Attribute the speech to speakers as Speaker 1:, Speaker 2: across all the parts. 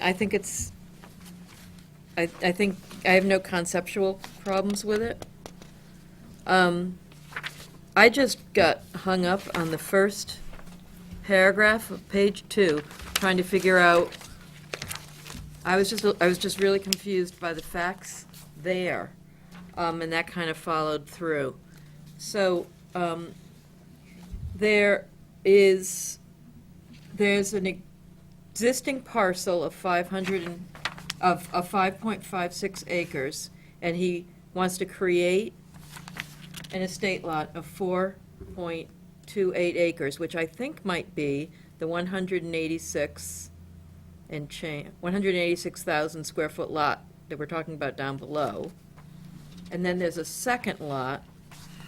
Speaker 1: I think it's, I, I think, I have no conceptual problems with it. Um, I just got hung up on the first paragraph of page two, trying to figure out, I was just, I was just really confused by the facts there, um, and that kind of followed through. So, um, there is, there's an e- existing parcel of 500 and, of, of 5.56 acres, and he wants to create an estate lot of 4.28 acres, which I think might be the 186 and change, 186,000 square foot lot that we're talking about down below. And then there's a second lot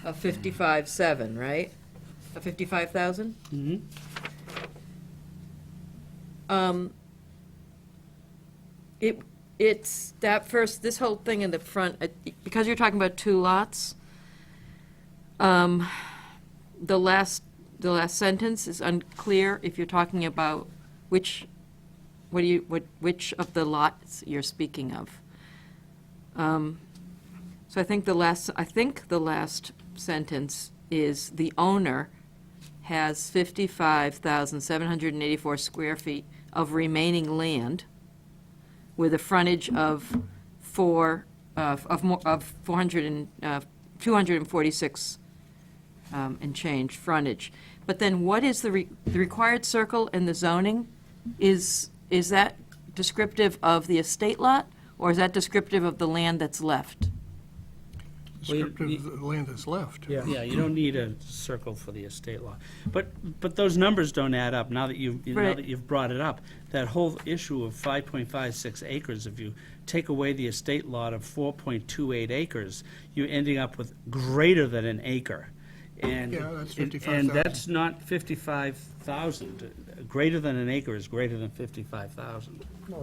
Speaker 1: of 55.7, right? Of 55,000?
Speaker 2: Mhm.
Speaker 1: Um, It, it's that first, this whole thing in the front, uh, because you're talking about two lots, um, the last, the last sentence is unclear if you're talking about which, what do you, what, which of the lots you're speaking of. Um, So I think the last, I think the last sentence is the owner has 55,784 square feet of remaining land with a frontage of four, of, of more- of 400 and, uh, 246 um, and change frontage. But then what is the, re- the required circle in the zoning? Is, is that descriptive of the estate lot, or is that descriptive of the land that's left?
Speaker 2: Well, you-
Speaker 3: descriptive of the land that's left.
Speaker 2: Yeah, you don't need a circle for the estate law. But, but those numbers don't add up, now that you've, you- now
Speaker 1: Right.
Speaker 2: that you've brought it up. That whole issue of 5.56 acres, if you take away the estate lot of 4.28 acres, you're ending up with greater than an acre. And,
Speaker 3: Yeah, that's
Speaker 2: and- And
Speaker 3: 55,000.
Speaker 2: that's not 55,000. Greater than an acre is grereater than 55,000.
Speaker 3: No,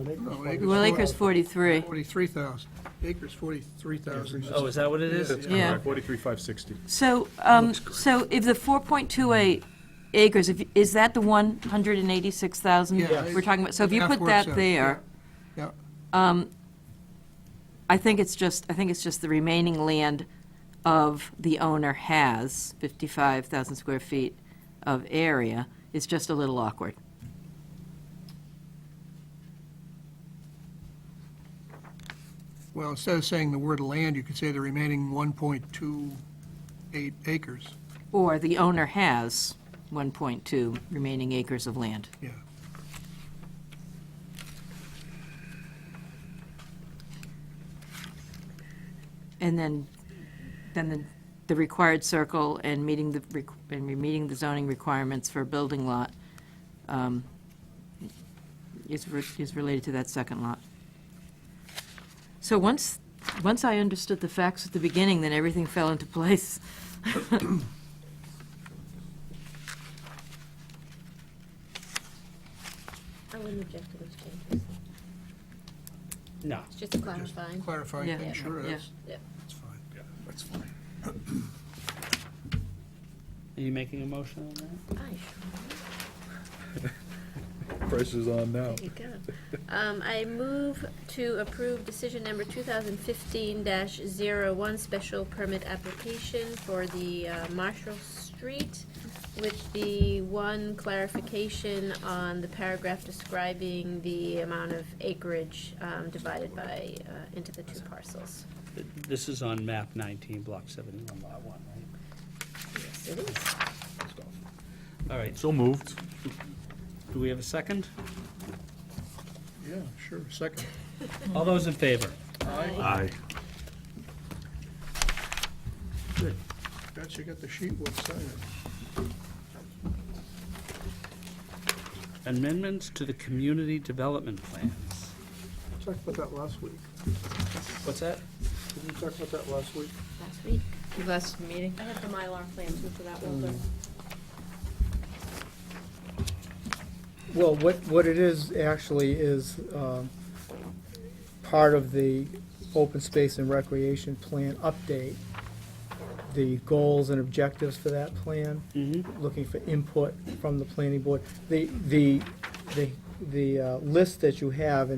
Speaker 1: Well, acres
Speaker 3: four-
Speaker 1: 43.
Speaker 3: 43,000, acres 43,000.
Speaker 2: Oh, is that what it is?
Speaker 3: Yeah, yeah.
Speaker 1: Yeah.
Speaker 4: Correct, 43,560.
Speaker 1: So, um, so if the 4.28 acres, if- is that the 186,000
Speaker 3: Yeah.
Speaker 1: we're talking about? So if you
Speaker 3: Half
Speaker 1: put
Speaker 3: works
Speaker 1: that
Speaker 3: out,
Speaker 1: there,
Speaker 3: Yeah,
Speaker 1: um, I think it's just, I think it's just the remaining land of the owner has 55,000 square feet of area. It's just a little awkward.
Speaker 3: well, instead of saying the word land, you could say the remaining 1.28 acres,
Speaker 1: Or the owner has 1.2 remaining acres of land.
Speaker 3: yeah.
Speaker 1: And then, then the, the required circle and meeting the, req- and re- meeting the zoning requirements for a building lot um, is, re- is related to that second lot. So once, once I understood the facts at the beginning, then everything fell into place.
Speaker 5: I wouldn't object to those changes.
Speaker 2: No.
Speaker 5: It's just clarifying.
Speaker 3: Clarifying,
Speaker 1: Yeah,
Speaker 3: thing, sure,
Speaker 1: yeah.
Speaker 3: that's,
Speaker 5: Yeah.
Speaker 3: that's fine.
Speaker 4: Yeah, that's fine.
Speaker 2: Are you making a motion on that?
Speaker 5: Aye,
Speaker 4: Pressure's on now.
Speaker 5: there you go. Um, I move to approve decision number two thousand fifteen dash zero one, special permit application for the uh, Marshall Street with the one clarification on the paragraph describing the amount of acreage, um, divided by, uh, into the two parcels.
Speaker 2: Th- This is on map 19, block 71, lot 1, right?
Speaker 5: Yes, it is.
Speaker 2: All right, so
Speaker 4: So moved.
Speaker 2: do we have a second?
Speaker 3: Yeah, sure, second.
Speaker 2: All those in favor?
Speaker 4: Aye.
Speaker 3: Good. Bet you got the sheet, we'll sign it.
Speaker 2: Amendments to the community development plans.
Speaker 3: Talked about that last week.
Speaker 2: What's that?
Speaker 3: Did we talk about that last week?
Speaker 5: Last week.
Speaker 1: Last meeting?
Speaker 5: I have the Mylar plans for that one.
Speaker 6: Well, what, what it is actually is um, part of the open space and recreation plan update. The goals and objectives for that plan,
Speaker 2: Mm-hmm.
Speaker 6: looking for input from the planning board. The, the, the, the uh, list that you have in